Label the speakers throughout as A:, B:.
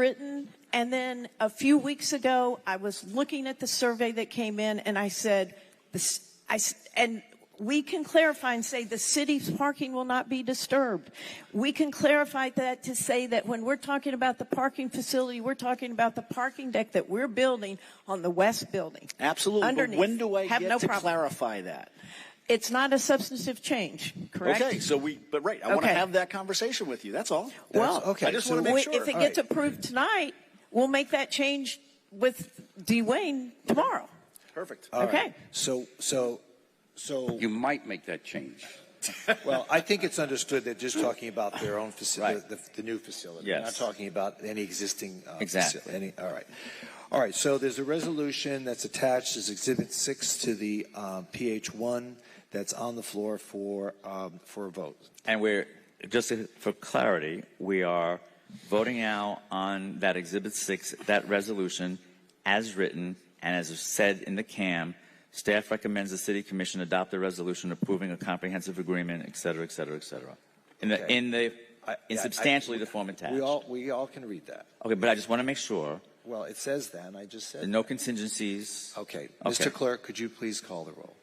A: written. And then a few weeks ago, I was looking at the survey that came in and I said, this, I, s- and we can clarify and say the city's parking will not be disturbed. We can clarify that to say that when we're talking about the parking facility, we're talking about the parking deck that we're building on the west building.
B: Absolutely. But
A: Underneath.
B: when do I
A: Have
B: get
A: no
B: to
A: problem.
B: clarify that?
A: It's not a substantive change, correct?
B: Okay, so we, but right, I want to
A: Okay.
B: have that conversation with you. That's all.
A: Well,
C: That's- okay,
B: I just
C: so-
B: want to
A: we-
B: make sure.
A: if it
B: All
A: gets
B: right.
A: approved tonight, we'll make that change with Dwayne tomorrow.
B: Perfect.
A: Okay.
C: So, so, so,
D: You might make that change.
C: well, I think it's understood they're just talking about their own facility,
D: Right.
C: the, the new facility.
D: Yes.
C: Not talking about any existing. uh,
D: Exactly.
C: faci- Any, all right. All right, so there's a resolution that's attached as Exhibit 6 to the um, PH1 that's on the floor for, um, for a vote.
E: And we're, just for clarity, we are voting now on that Exhibit 6, that resolution, as written and as said in the CAM. Staff recommends the City Commission adopt the resolution approving a comprehensive agreement, et cetera, et cetera, et cetera. In the,
C: Okay.
E: in the, uh,
C: I-
E: in
C: I- I-
E: substantially the form attached.
C: We all, we all can read that.
E: Okay, but I just want to make sure,
C: Well, it says that, and I just
E: there are
C: said.
E: no contingencies.
C: Okay.
E: Okay.
C: Mr. Clerk, could you please call the roll?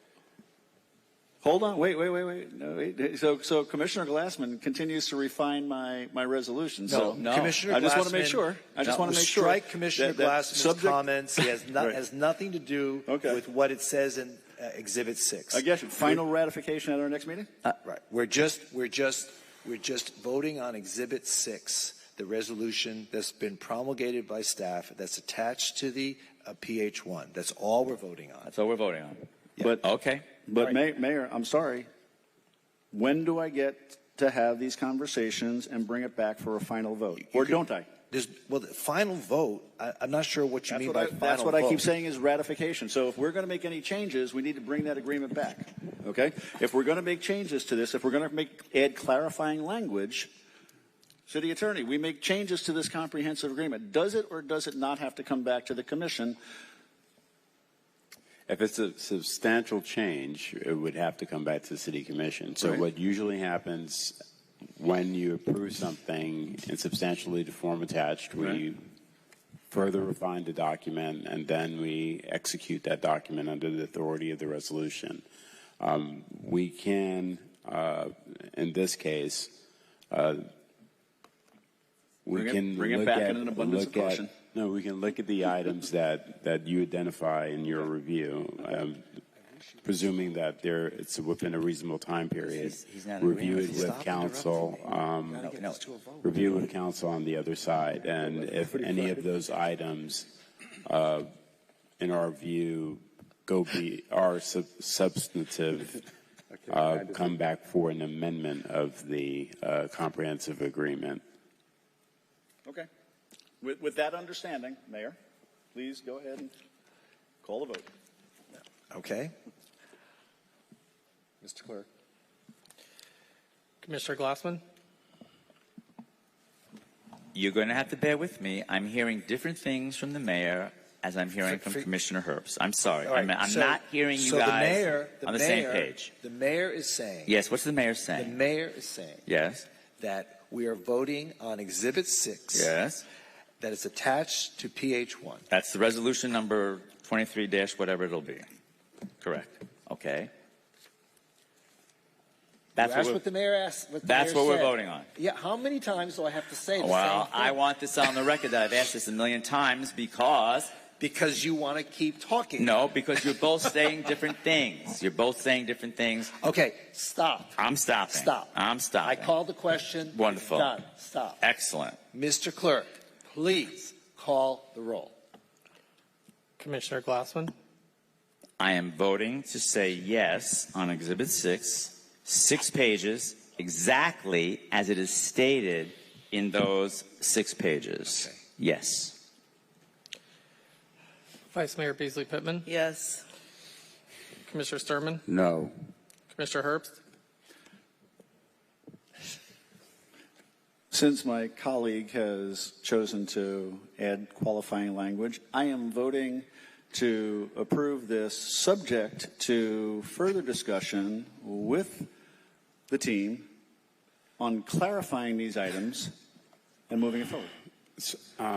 B: Hold on, wait, wait, wait, wait. No, wait. So, so Commissioner Glassman continues to refine my, my resolution. so
E: no.
C: Commissioner
B: I just want
C: Glassman-
B: to make sure. I just
E: No.
B: want to make sure.
C: Strike Commissioner
B: that- that
C: Glassman's
B: subject-
C: comments. He has, not,
B: Right.
C: has nothing to do
B: Okay.
C: with what it says in uh, Exhibit Six.
B: I guess final ratification at our next meeting?
C: Right. We're just we're just we're just voting on Exhibit Six, the resolution that's been promulgated by staff that's attached to the uh, PH one. That's all we're voting on.
E: That's all we're voting on.
B: But,
E: Okay.
B: but May- Mayor, I'm sorry. When do I get to have these conversations and bring it back for a final vote? Or don't I?
C: There's well, the final vote. I, I'm not sure what you
B: That's
C: mean
B: what,
C: by
B: I,
C: final
B: that's what I
C: vote.
B: keep saying is ratification. So if we're going to make any changes, we need to bring that agreement back. Okay? If we're going to make changes to this, if we're going to make add clarifying language, City Attorney, we make changes to this comprehensive agreement. Does it or does it not have to come back to the commission?
F: If it's a substantial change, it would have to come back to the city commission. So
B: Right.
F: what usually happens when you approve something in substantially the form attached, we
B: Right.
F: further refine the document and then we execute that document under the authority of the resolution. Um, we can, uh, in this case, uh, we
B: Bring it-
F: can
B: bring it
F: look
B: back
F: at-
B: in an abundance of
F: look at-
B: caution.
F: no, we can look at the items that, that you identify in your review, um, presuming that there, it's within a reasonable time period.
E: He's- he's not agreeing
F: Review
E: with
F: it
E: you.
F: with
C: Stop
F: council,
C: interrupting me.
F: um,
C: Gotta get
E: no.
C: this to a vote.
F: review with council on the other side. And if any of those items, uh, in our view, go be, are sub- substantive, uh, come back for an amendment of the, uh, comprehensive agreement.
B: Okay. With, with that understanding, Mayor, please go ahead and call the vote.
C: Okay. Mr. Clerk.
G: Commissioner Glassman?
E: You're going to have to bear with me. I'm hearing different things from the mayor as I'm hearing
C: For-
E: from
C: for-
E: Commissioner Herbst. I'm sorry.
C: All right,
E: I'm, I'm
C: so-
E: not hearing you
C: so the
E: guys
C: mayor-
E: on the same
C: mayor-
E: page.
C: The mayor is saying.
E: Yes, what's the mayor
C: The
E: saying?
C: mayor is saying
E: yes,
C: that we are voting on Exhibit Six.
E: yes.
C: That is attached to PH one.
E: That's the resolution number 23 dash whatever it'll be. Correct. Okay. That's
C: That's
E: what,
C: what the mayor asked. What the
E: That's
C: mayor
E: what we're
C: said.
E: voting on.
C: Yeah. How many times do I have to say?
E: we're,
C: The
E: well,
C: same thing?
E: I want this on the record that I've asked this a million times because
C: because you want to keep talking.
E: no, because you're both saying different things. You're both saying different things.
C: Okay. Stop.
E: I'm stopping.
C: Stop.
E: I'm
C: I
E: stopping.
C: called the question.
E: Wonderful.
C: It's done. Stop.
E: Excellent.
C: Mr. Clerk, please call the roll.
G: Commissioner Glassman?
E: I am voting to say yes on Exhibit 6, six pages, exactly as it is stated in those six pages.
C: Okay.
E: Yes.
G: Vice Mayor Beasley Pittman?
A: Yes.
G: Commissioner Sturman?
F: No.
G: Commissioner Herbst?
B: Since my colleague has chosen to add qualifying language, I am voting to approve this subject to further discussion with the team on clarifying these items and moving it forward.